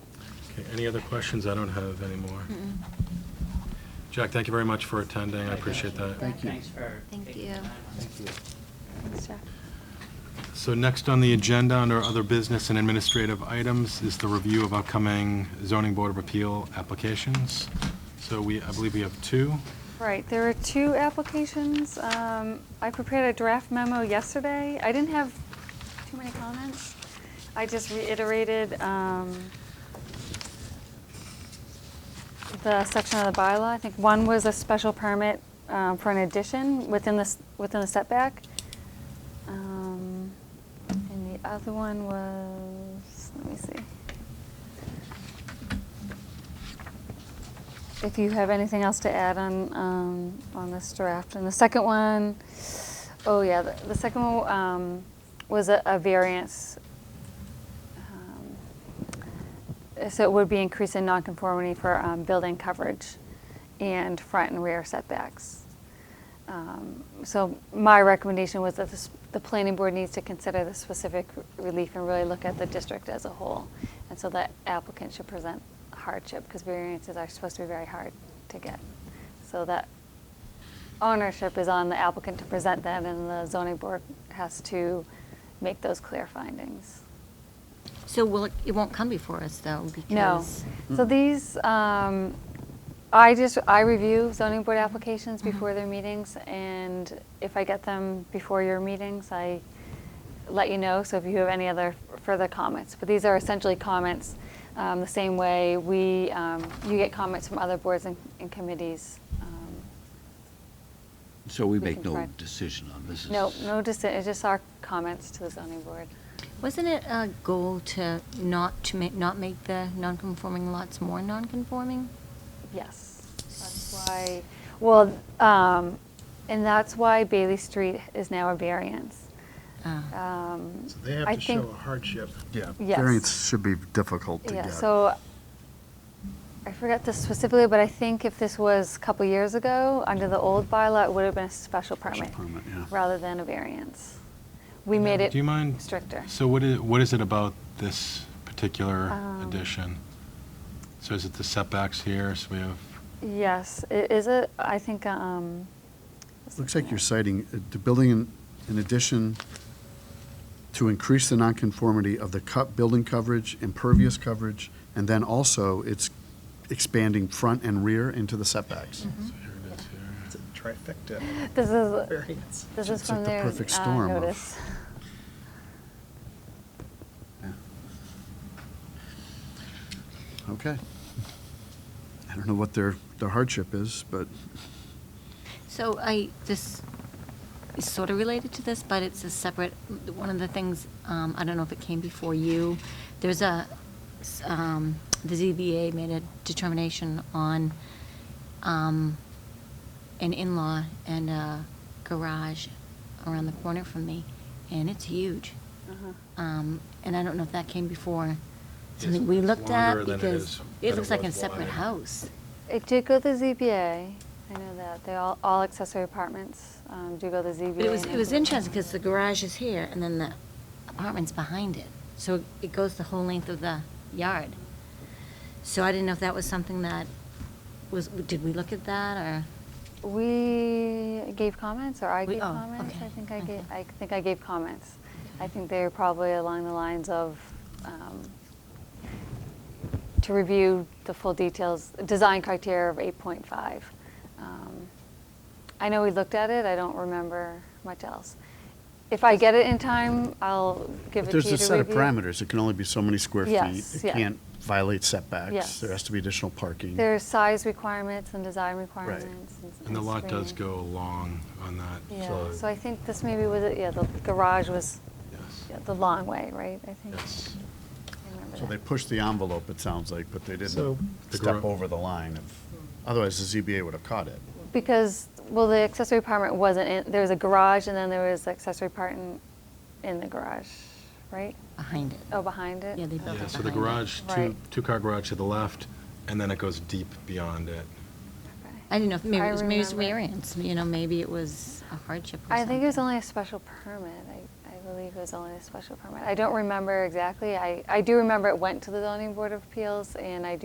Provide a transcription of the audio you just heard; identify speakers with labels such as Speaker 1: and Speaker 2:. Speaker 1: Okay, any other questions? I don't have any more. Jack, thank you very much for attending, I appreciate that.
Speaker 2: Thank you.
Speaker 3: Thanks for
Speaker 4: Thank you.
Speaker 3: taking the time on this.
Speaker 1: So next on the agenda, under other business and administrative items, is the review of upcoming zoning board of appeal applications. So we, I believe we have two.
Speaker 5: Right, there are two applications. Um, I prepared a draft memo yesterday. I didn't have too many comments. I just reiterated um, the section of the bylaw. I think one was a special permit um, for an addition within the, s- within the setback. Um, And the other one was, let me see. If you have anything else to add on, um, on this draft. And the second one, oh yeah, the, the second one, um, was a, a variance. Um, So it would be increase in nonconformity for, um, building coverage and front and rear setbacks. Um, So my recommendation was that this- the planning board needs to consider the specific relief and really look at the district as a whole. And so that applicant should present hardship, because variances are supposed to be very hard to get. So that ownership is on the applicant to present that, and the zoning board has to make those clear findings.
Speaker 4: So will, it it won't come before us, though,
Speaker 5: No.
Speaker 4: because...
Speaker 5: So these, um, I just, I review zoning board applications before their meetings, and if I get them before your meetings, I let you know, so if you have any other further comments. But these are essentially comments, um, the same way we, um, you get comments from other boards and and committees. um,
Speaker 2: So we
Speaker 5: We
Speaker 2: make
Speaker 5: can
Speaker 2: no
Speaker 5: try.
Speaker 2: decision on this? is-
Speaker 5: No, no, just, it's just our comments to the zoning board.
Speaker 4: Wasn't it a goal to not, to make, not make the non-conforming lots more non-conforming?
Speaker 5: Yes, that's why, well, um, and that's why Bailey Street is now a variance.
Speaker 4: Uh,
Speaker 5: Um,
Speaker 6: So They have
Speaker 5: I
Speaker 6: to show
Speaker 5: think-
Speaker 6: a hardship.
Speaker 7: Yeah,
Speaker 5: Yes.
Speaker 7: variance should be difficult to get.
Speaker 5: Yeah, so I forgot this specifically, but I think if this was a couple years ago, under the old bylaw, it would have been a special
Speaker 2: Special
Speaker 5: permit
Speaker 2: permit, yeah.
Speaker 5: rather than a variance. We made it
Speaker 1: Do you mind?
Speaker 5: stricter.
Speaker 1: So what is, what is it about this particular
Speaker 5: Um,
Speaker 1: addition? So is it the setbacks here, so we have,
Speaker 5: Yes, i- is it, I think, um. it's
Speaker 7: Looks like
Speaker 5: in
Speaker 7: you're
Speaker 5: there.
Speaker 7: citing, uh, the building in- in addition to increase the nonconformity of the co- building coverage, impervious coverage, and then also it's expanding front and rear into the setbacks.
Speaker 1: so here it is here.
Speaker 6: It's a trifecta
Speaker 5: This is,
Speaker 6: variance.
Speaker 5: this is
Speaker 7: It's like
Speaker 5: from
Speaker 7: the
Speaker 5: their
Speaker 7: perfect
Speaker 5: uh,
Speaker 7: storm of-
Speaker 5: notice. Mm-hmm.
Speaker 7: Okay. I don't know what their their hardship is, but
Speaker 4: So I, this is sort of related to this, but it's a separate, one of the things, um, I don't know if it came before you, there's a, s- um, the ZBA made a determination on um, an in-law and a garage around the corner from me, and it's huge.
Speaker 5: Uh-huh.
Speaker 4: Um, And I don't know if that came before,
Speaker 1: Yes,
Speaker 4: something we
Speaker 1: it's
Speaker 4: looked
Speaker 1: longer
Speaker 4: at,
Speaker 1: than it
Speaker 4: because
Speaker 1: is- than
Speaker 4: it
Speaker 1: it
Speaker 4: looks like a
Speaker 1: was
Speaker 4: separate
Speaker 1: wide.
Speaker 4: house.
Speaker 5: It did go to ZBA, I know that, they all, all accessory apartments, um, do go to ZBA.
Speaker 4: But it was,
Speaker 5: and
Speaker 4: it was
Speaker 5: everything.
Speaker 4: interesting, because the garage is here, and then the apartment's behind it. So it goes the whole length of the yard. So I didn't know if that was something that was, did we look at that, or?
Speaker 5: We gave comments, or I
Speaker 4: We-
Speaker 5: gave
Speaker 4: oh,
Speaker 5: comments?
Speaker 4: okay,
Speaker 5: I think I
Speaker 4: okay.
Speaker 5: gave, I think I gave comments. I think they're probably along the lines of, um, to review the full details, design criteria of 8.5. Um, I know we looked at it, I don't remember much else. If I get it in time, I'll give it to you to review.
Speaker 7: there's a set of parameters. It can only be so many square
Speaker 5: feet. Yes,
Speaker 7: feet.
Speaker 5: It yeah.
Speaker 7: It
Speaker 5: can't
Speaker 7: can't violate setbacks.
Speaker 5: Yes. There
Speaker 7: There
Speaker 5: has
Speaker 7: has to be additional parking.
Speaker 5: There are size requirements and design requirements.
Speaker 1: and the lot does
Speaker 5: screening.
Speaker 1: go long on that.
Speaker 5: Yeah, so I think this maybe was, it- yeah, the garage was
Speaker 1: Yes.
Speaker 5: yeah, the long way, right? I think.
Speaker 1: Yes.
Speaker 5: I remember
Speaker 7: So they
Speaker 5: that.
Speaker 7: pushed the envelope, it sounds like, but they
Speaker 6: So-
Speaker 7: didn't
Speaker 1: The
Speaker 7: step
Speaker 1: gro-
Speaker 7: over the line of, otherwise the ZBA would have caught it.
Speaker 5: Because, well, the accessory apartment wasn't, in there was a garage and then there was the accessory part in, in the garage, right?
Speaker 4: Behind it.
Speaker 5: Oh, behind it?
Speaker 4: Yeah, they built
Speaker 1: Yeah,
Speaker 4: it
Speaker 1: so the
Speaker 4: behind it.
Speaker 1: garage, two,
Speaker 5: Right.
Speaker 1: two-car garage to the left, and then it goes deep beyond it.
Speaker 5: Okay.
Speaker 4: I didn't know, if maybe
Speaker 5: I
Speaker 4: it was, maybe it was
Speaker 5: remember.
Speaker 4: variance, you know, maybe it was a hardship or
Speaker 5: I think it was
Speaker 4: something.
Speaker 5: only a special permit, I, I believe. believe it was only a special permit. I don't remember exactly. I, I do remember it went to the zoning board of appeals, and I do